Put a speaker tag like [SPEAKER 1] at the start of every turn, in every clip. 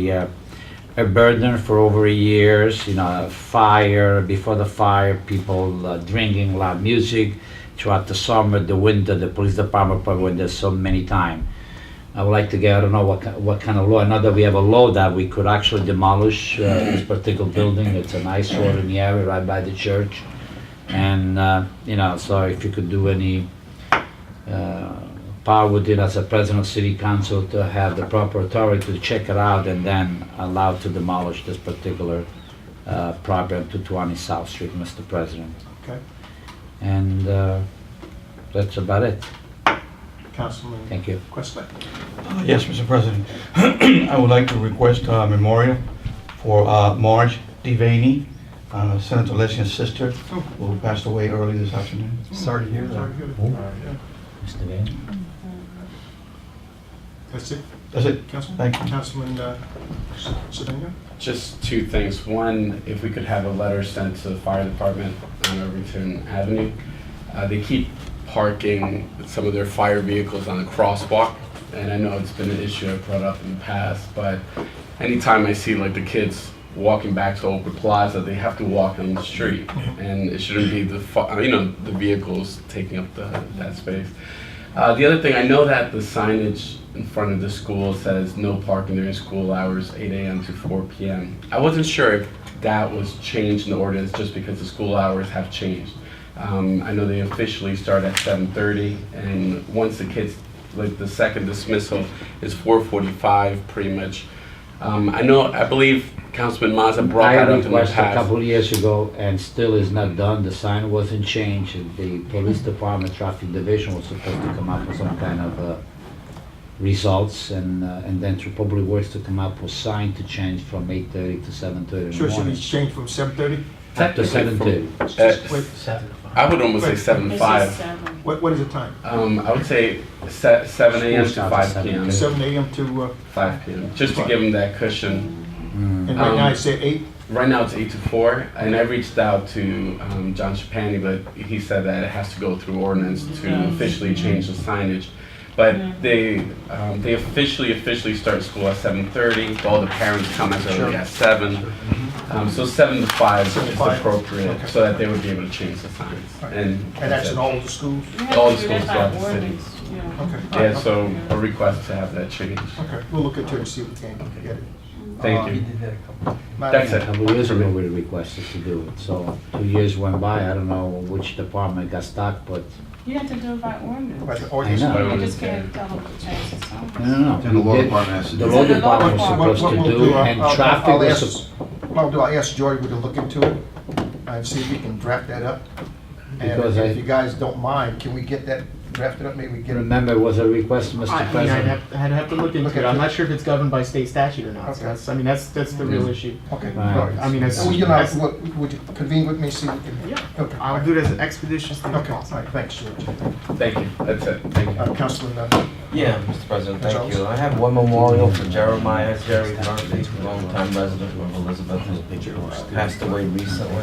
[SPEAKER 1] Yeah, a burden for over years, you know, fire, before the fire, people uh, drinking loud music throughout the summer, the winter, the police department probably went there so many time. I would like to get, I don't know what, ki- what kind of law, not that we have a law that we could actually demolish uh, this particular building, it's an eyesore in the area right by the church. And, uh, you know, so if you could do any uh, power within as a president of city council to have the proper authority to check it out and then allow to demolish this particular uh, property on 220 South Street, Mr. President.
[SPEAKER 2] Okay,
[SPEAKER 1] And uh, that's about it.
[SPEAKER 2] Councilman
[SPEAKER 1] Thank you.
[SPEAKER 2] Questa.
[SPEAKER 3] Uh, Yes, Mr. President. I would like to request a memorial for uh, Marge Devaney, uh, Senator Leslie's sister, who passed away early this afternoon.
[SPEAKER 4] Sorry to hear that.
[SPEAKER 1] Oh. Mr. Van?
[SPEAKER 2] That's it,
[SPEAKER 3] That's it.
[SPEAKER 2] Councilman?
[SPEAKER 3] Thank you.
[SPEAKER 2] Councilman uh, S- Sedano?
[SPEAKER 5] Just two things. One, if we could have a letter sent to the fire department on Irvington Avenue. Uh, They keep parking some of their fire vehicles on the crosswalk, and I know it's been an issue I've brought up in the past, but anytime I see like the kids walking back to Oprah Plaza, they have to walk on the street, and it shouldn't be the, fi- uh, you know, the vehicles taking up the, that space. Uh, the other thing, I know that the signage in front of the school says no parking during school hours, 8 a.m. to 4 p.m. I wasn't sure if that was changed in the ordinance just because the school hours have changed. Um, I know they officially start at 7:30, and once the kids, like the second dismissal is 4:45, pretty much. Um, I know, I believe Councilman Mazza brought
[SPEAKER 1] I
[SPEAKER 5] that up in the
[SPEAKER 1] requested a
[SPEAKER 5] past.
[SPEAKER 1] couple of years ago and still is not done. The sign wasn't changed. The police department traffic division was supposed to come up with some kind of uh, results and, uh, and then through public works to come up with sign to change from 8:30 to 7:30 in
[SPEAKER 2] Sure,
[SPEAKER 1] the
[SPEAKER 2] should we
[SPEAKER 1] morning.
[SPEAKER 2] change from seven thirty?
[SPEAKER 1] Up to 7:30.
[SPEAKER 5] Uh,
[SPEAKER 2] Wait,
[SPEAKER 5] I would almost say
[SPEAKER 2] Wait.
[SPEAKER 5] seven
[SPEAKER 6] It's
[SPEAKER 5] five.
[SPEAKER 6] just seven.
[SPEAKER 2] what, what is the time?
[SPEAKER 5] Um, I would say se- seven a.m. to
[SPEAKER 1] School starts at
[SPEAKER 5] five p.m.
[SPEAKER 1] 7.
[SPEAKER 2] Seven AM to, uh,
[SPEAKER 5] Five p.m. Just to give them that cushion.
[SPEAKER 1] Mm.
[SPEAKER 2] and right
[SPEAKER 5] Um,
[SPEAKER 2] now it's at eight?
[SPEAKER 5] Right now it's eight to four, and I reached out to um, John Chapani, but he said that it has to go through ordinance to
[SPEAKER 6] Yes.
[SPEAKER 5] officially change the signage. But they um, they officially officially start school at seven thirty. All the parents come as early as seven. Um, so seven to five
[SPEAKER 2] Mm-hmm. Seven to
[SPEAKER 5] is
[SPEAKER 2] five.
[SPEAKER 5] appropriate,
[SPEAKER 2] Okay.
[SPEAKER 5] so that they would be able to change the signs.
[SPEAKER 2] Right.
[SPEAKER 5] And,
[SPEAKER 2] And that's in all the schools?
[SPEAKER 6] You have
[SPEAKER 5] All
[SPEAKER 6] to do that
[SPEAKER 5] schools
[SPEAKER 6] by
[SPEAKER 5] throughout the city.
[SPEAKER 6] ordinance, yeah.
[SPEAKER 2] Okay.
[SPEAKER 5] Yeah, so a request to have that changed.
[SPEAKER 2] Okay, we'll look into it and see if we can get it. Uh,
[SPEAKER 5] Thank you. That's
[SPEAKER 2] Madam-
[SPEAKER 1] A couple of years ago, we requested to do it, so two years went by, I don't know which department got stuck, but,
[SPEAKER 6] You have to do it by ordinance.
[SPEAKER 2] By the ordinance.
[SPEAKER 1] I know.
[SPEAKER 6] You just can't tell them to change the
[SPEAKER 1] no,
[SPEAKER 6] sign.
[SPEAKER 1] no, no.
[SPEAKER 4] Then the law
[SPEAKER 1] we did-
[SPEAKER 4] department has to
[SPEAKER 1] The
[SPEAKER 4] do
[SPEAKER 1] law
[SPEAKER 6] it.
[SPEAKER 1] department was
[SPEAKER 6] What-
[SPEAKER 2] What-
[SPEAKER 1] supposed
[SPEAKER 2] what
[SPEAKER 1] to
[SPEAKER 2] we'll
[SPEAKER 1] do,
[SPEAKER 2] I'll-
[SPEAKER 1] and
[SPEAKER 2] I'll-
[SPEAKER 1] traffic
[SPEAKER 2] I'll
[SPEAKER 1] was,
[SPEAKER 2] ask-
[SPEAKER 1] sup-
[SPEAKER 2] What I'll do, I'll ask Joy to look into it and see if we can draft that up. And
[SPEAKER 1] Because I-
[SPEAKER 2] if you guys don't mind, can we get that drafted up? Maybe we get it.
[SPEAKER 1] remember, it was a request,
[SPEAKER 7] I
[SPEAKER 1] Mr.
[SPEAKER 7] mean, I'd
[SPEAKER 1] President.
[SPEAKER 7] have, I'd have to look
[SPEAKER 2] Look
[SPEAKER 7] into it.
[SPEAKER 2] at
[SPEAKER 7] I'm
[SPEAKER 2] it.
[SPEAKER 7] not sure if it's governed by state statute or not.
[SPEAKER 2] Okay.
[SPEAKER 7] So that's, I mean, that's, that's the real issue.
[SPEAKER 2] Okay.
[SPEAKER 1] Right.
[SPEAKER 2] all right.
[SPEAKER 7] I mean, it's-
[SPEAKER 2] Well, you know,
[SPEAKER 7] it's-
[SPEAKER 2] would would you convene with me, see if we can?
[SPEAKER 7] Yeah.
[SPEAKER 2] Okay.
[SPEAKER 7] I'll do it as expeditiously as
[SPEAKER 2] Okay, all
[SPEAKER 7] possible.
[SPEAKER 2] right, thanks, George.
[SPEAKER 5] Thank you. That's it. Thank you.
[SPEAKER 2] Uh, Councilman, uh,
[SPEAKER 8] Yeah, Mr. President, thank
[SPEAKER 2] Charles?
[SPEAKER 8] you. I have one memorial for Jeremiah Jerry Murphy, longtime resident of Elizabeth, who passed away recently.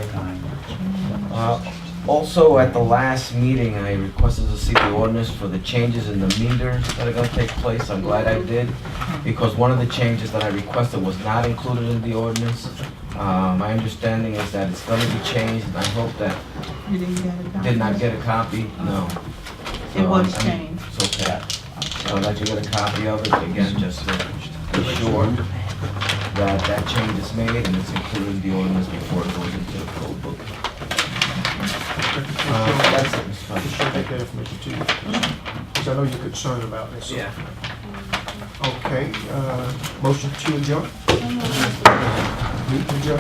[SPEAKER 8] Uh, Also, at the last meeting, I requested to see the ordinance for the changes in the meters that are gonna take place. I'm glad I did, because one of the changes that I requested was not included in the ordinance. Uh, My understanding is that it's gonna be changed, and I hope that,
[SPEAKER 6] You didn't get it
[SPEAKER 8] did not get a copy? No.
[SPEAKER 6] It was
[SPEAKER 8] So, I'm-
[SPEAKER 6] changed.
[SPEAKER 8] It's okay. So I'd like to get a copy of it, again, just to be sure that that change is made and it's included in the ordinance before it goes into the code book. Uh, That's it, Mr.
[SPEAKER 2] Just
[SPEAKER 8] President.
[SPEAKER 2] should take that information to you, because I know you're concerned about this.
[SPEAKER 8] Yeah.
[SPEAKER 2] Okay, uh, motion to adjourn,
[SPEAKER 6] Someone needs to-
[SPEAKER 2] Move to adjourn.